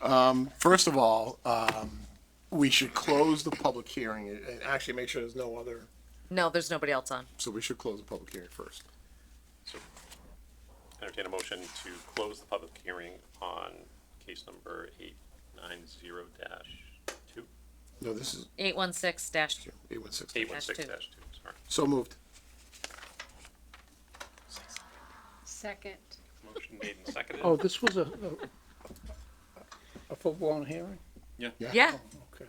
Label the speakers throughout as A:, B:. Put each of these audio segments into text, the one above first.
A: Um, first of all, um, we should close the public hearing and and actually make sure there's no other,
B: No, there's nobody else on.
A: so we should close the public hearing first.
C: Entertain a motion to close the public hearing on case number eight nine zero dash two,
A: No, this is
B: Eight one six dash two.
A: eight one six.
C: eight one six
B: Dash
C: dash two, sorry.
A: So moved.
D: Second.
C: Motion made and seconded.
E: Oh, this was a, a- a full-blown hearing?
B: Yeah,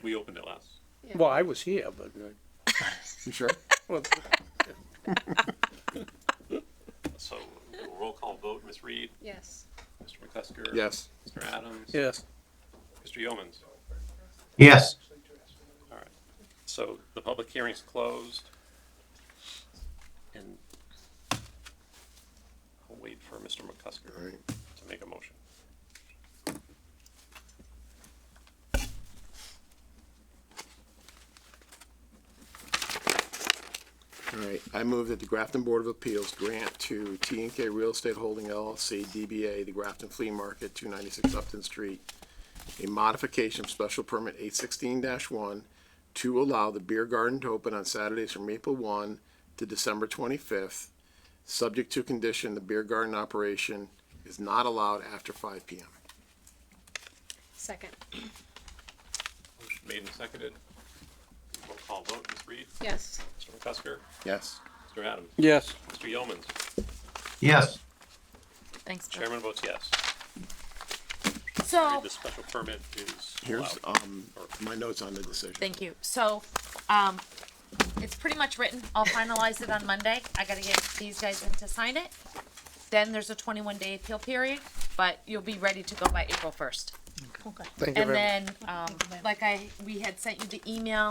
C: We opened it last.
E: Well, I was here, but, uh,
A: You sure?
E: well,
C: So we'll roll call vote, Ms. Reed,
D: Yes.
C: Mr. McCusker.
A: Yes.
C: Mr. Adams.
E: yes.
C: Mr. Yeomans.
F: Yes.
C: All right. So the public hearing's closed. And I'll wait for Mr.
A: All
C: McCusker
A: right.
C: to make a motion.
A: All right, I move that the Grafton Board of Appeals grant to T and K Real Estate Holding LLC, DBA, the Grafton Flea Market, two ninety-six Upton Street, a modification of special permit eight sixteen one to allow the beer garden to open on Saturdays from April one to December twenty-fifth, subject to condition the beer garden operation is not allowed after five P M.
D: Second.
C: Motion made and seconded. Roll call vote, Ms. Reed,
D: Yes.
C: Mr. McCusker,
A: Yes.
C: Mr. Adams,
E: Yes.
C: Mr. Yeomans.
F: Yes.
B: thanks. Bill.
C: Chairman votes yes.
B: So, Oh.
C: The special permit is
A: Here's,
C: allowed.
A: um, my notes on the decision.
B: thank you. So, um, it's pretty much written. I'll finalize it on Monday. I gotta get these guys in to sign it. Then there's a twenty-one day appeal period, but you'll be ready to go by April first.
E: Thank you
B: And
E: very much.
B: then, um, like I, we had sent you the email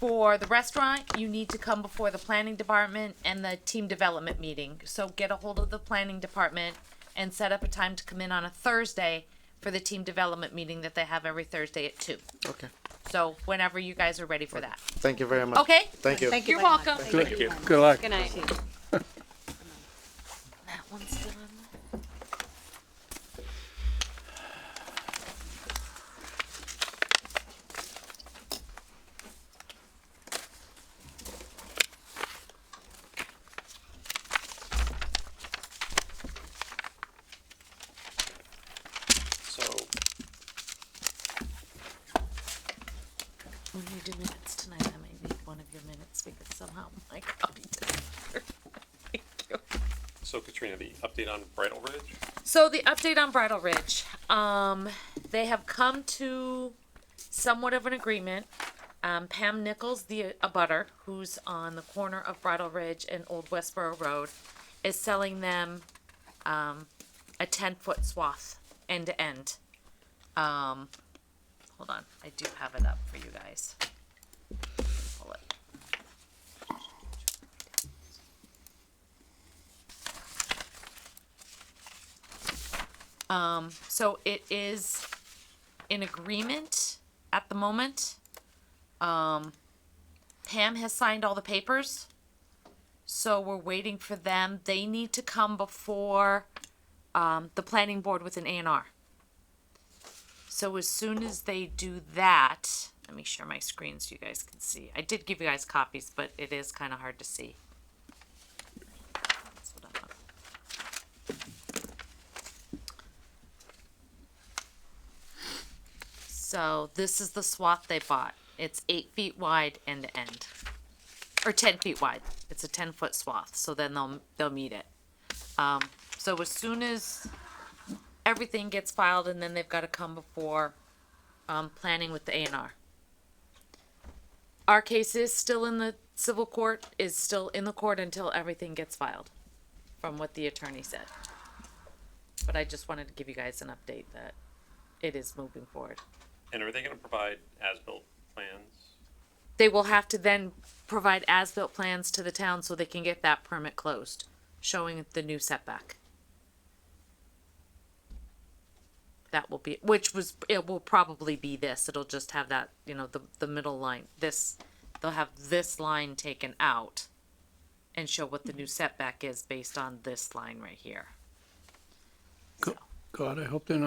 B: for the restaurant, you need to come before the planning department and the team development meeting. So get a hold of the planning department and set up a time to come in on a Thursday for the team development meeting that they have every Thursday at two.
G: Okay.
B: So whenever you guys are ready for that,
G: Thank you very much.
B: okay?
G: Thank you.
B: You're welcome.
E: Thank you. Good luck.
D: Good night.
B: That one's still on there.
C: So
B: When we do minutes tonight, I might need one of your minutes because somehow my copy didn't. work. Thank you.
C: so Katrina, the update on Bridal Ridge?
B: So the update on Bridal Ridge, um, they have come to somewhat of an agreement. Um, Pam Nichols, the abutter, who's on the corner of Bridal Ridge and Old Westboro Road, is selling them, um, a ten-foot swath end to end. Um, hold on, I do have it up for you guys. Pull it. so it is in agreement at the moment. Um, Pam has signed all the papers. So we're waiting for them. They need to come before, um, the planning board with an A and R. So as soon as they do that, let me share my screen so you guys can see. I did give you guys copies, but it is kind of hard to see. That's what I want. So this is the swath they bought. It's eight feet wide end to end, or ten feet wide. It's a ten foot swath. So then they'll they'll meet it. Um, so as soon as everything gets filed, and then they've got to come before um, planning with the A and R. Our case is still in the civil court. Is still in the court until everything gets filed, from what the attorney said. But I just wanted to give you guys an update that it is moving forward.
C: And are they gonna provide as-built plans?
B: they will have to then provide as-built plans to the town so they can get that permit closed, showing the new setback. That will be, which was, it will probably be this, it'll just have that, you know, the, the middle line, this, they'll have this line taken out and show what the new setback is based on this line right here.
E: God, I hope they're not